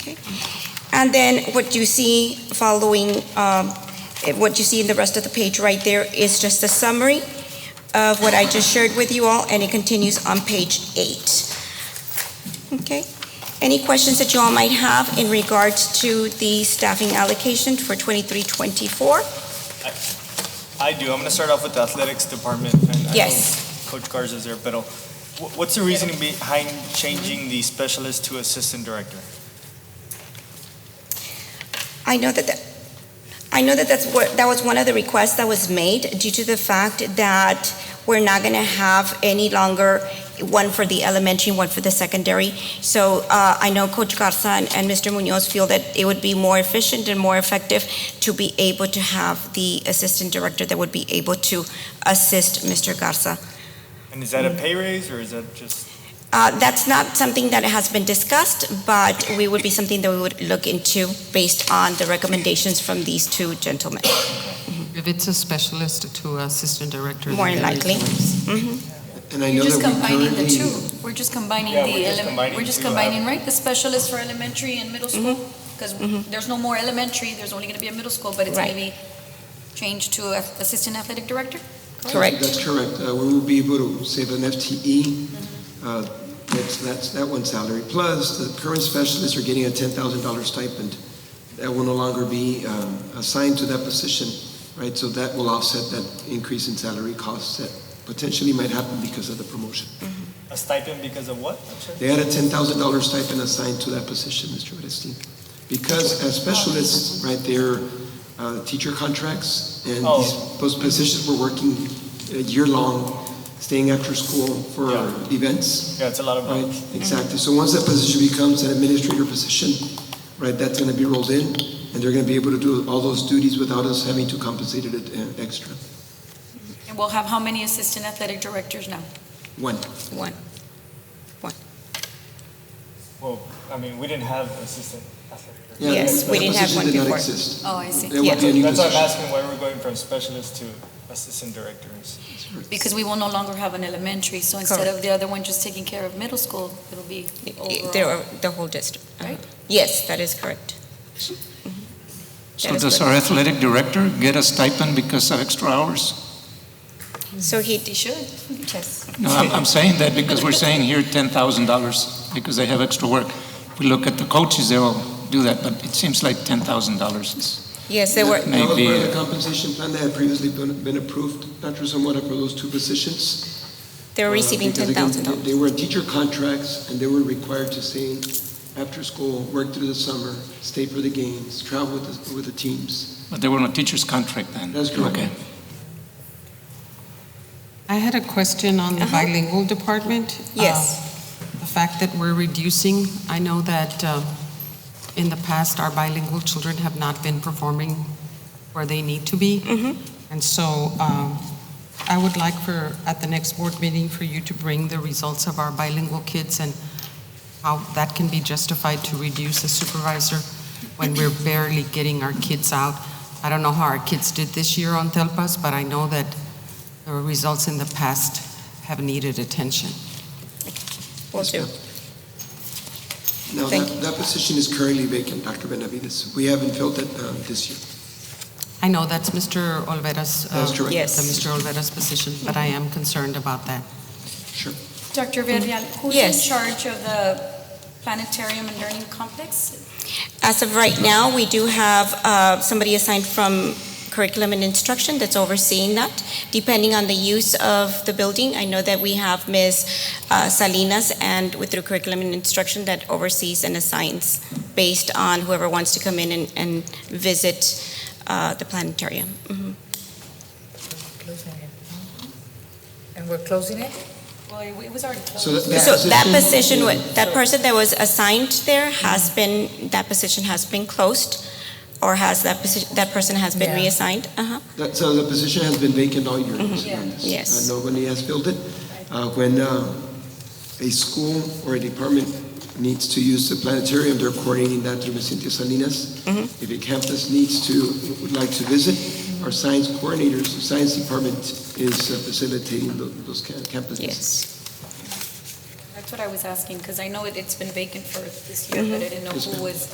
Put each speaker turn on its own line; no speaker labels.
Okay. And then what you see following, um, eh, what you see in the rest of the page right there is just a summary of what I just shared with you all, and it continues on page eight. Okay? Any questions that you all might have in regards to the staffing allocation for 2324?
I do. I'm going to start off with the athletics department. And I
Yes.
know Coach Garza's there, but uh, wh- what's the reasoning behind changing the specialist to assistant director?
I know that, that- I know that that's what, that was one of the requests that was made due to the fact that we're not going to have any longer one for the elementary, one for the secondary. So uh, I know Coach Garza and and Mr. Munoz feel that it would be more efficient and more effective to be able to have the assistant director that would be able to assist Mr. Garza.
And is that a pay raise or is that just?
Uh, That's not something that has been discussed, but we would be something that we would look into based on the recommendations from these two gentlemen.
If it's a specialist to uh, assistant director.
More
then there is
likely.
always-
Mhm.
And I know
You're just
that we
combining the
currently-
two. We're just combining the,
Yeah, we're just
ele-
combining
we're just
two, uh,
combining, right, the specialist for elementary and middle
Mm-hmm.
school? Because there's no more elementary, there's only going to be a middle school, but it's going
Right.
to be changed to a- assistant athletic director?
Correct.
That's correct. Uh, We will be able to save an FTE.
Mm-hmm.
uh, That's, that's, that one salary. Plus, the current specialists are getting a $10,000 stipend. That will no longer be um, assigned to that position, right? So that will offset that increase in salary costs that potentially might happen because of the promotion.
A stipend because of what? I'm sorry.
They had a $10,000 stipend assigned to that position, Mr. Orestes. Because as specialists, right, they're uh, teacher contracts, and
Oh.
these- those positions were working uh, year-long, staying after school for
Yeah. Mm-hmm.
events,
Yeah, it's a lot of
right?
money.
Exactly. So once that position becomes an administrator position, right, that's going to be rolled in, and they're going to be able to do all those duties without us having to compensate it uh, extra.
And we'll have how many assistant athletic directors now?
One.
One.
Well, I mean, we didn't have assistant athletic director.
Yeah,
Yes, we
that
didn't have
position
one
did not
before.
exist.
Oh, I see.
It would be a new
That's why I'm
position.
asking why we're going from specialist to assistant directors.
Because we will no longer have an elementary, so instead of the other one just taking care of middle school, it'll be
There
overall.
are the whole district. Uh-huh.
Right.
Yes, that is correct. Mm-hmm. That
So
is
does
good.
our athletic director get a stipend because of extra hours?
So he,
They should, yes.
No, I'm, I'm saying that because we're saying here ten thousand dollars because they have extra work. We look at the coaches, they all do that, but it seems like ten thousand dollars.
yes, there were,
That was
No.
part of
Maybe-
the compensation plan that had previously been been approved, Dr. Zamora, for those two positions.
they were
uh,
receiving
because
ten
again,
thousand
They
dollars.
were in teacher contracts, and they were required to stay after school, work through the summer, stay for the games, travel with the, with the teams.
But they were on a teacher's contract then.
That's correct.
Okay.
I had a question on the
Uh-huh.
bilingual department.
Yes,
Uh, The fact that we're reducing, I know that uh, in the past, our bilingual children have not been performing where they need to be.
Mhm.
And so um, I would like for, at the next board meeting, for you to bring the results of our bilingual kids and how that can be justified to reduce the supervisor when we're barely getting our kids out. I don't know how our kids did this year on Telpas, but I know that the results in the past have needed attention.
will do.
Now,
Thank
that, that position is currently vacant, Dr. Benavides. We haven't filled it um, this year.
I know that's Mr. Olvera's. uh,
That's correct.
Yes.
the Mr. Olvera's position, but I am concerned about that.
Sure. Mm-hmm.
Dr. Villarreal, who's in
Yes.
charge of the planetarium and learning complex?
As of right now, we do have uh, somebody assigned from curriculum and instruction that's overseeing that. Depending on the use of the building, I know that we have Ms. uh, Salinas and with through curriculum and instruction that oversees and assigns based on whoever wants to come in and, and visit uh, the planetarium. Mhm.
Closing it. And we're closing it?
Well, it was already closed.
So that, that
So
position.
that position, wa- that person that was assigned there has been, that position has been closed or has that position, that person has been
Yeah.
reassigned? Uh-huh.
That, so the position has been vacant all year. Mr.
Yeah.
Hernandez.
Yes.
Uh, Nobody has filled it. Uh, When uh, a school or a department needs to use the planetarium, they're coordinating that through Ms. Cynthia Salinas.
Mhm.
If a campus needs to, would like to visit, our science coordinators, the science department is uh, facilitating tho- those ca- campus visits.
Yes.
That's what I was asking, because I know it- it's been vacant for this year, but I didn't know
Yes, ma'am.
who was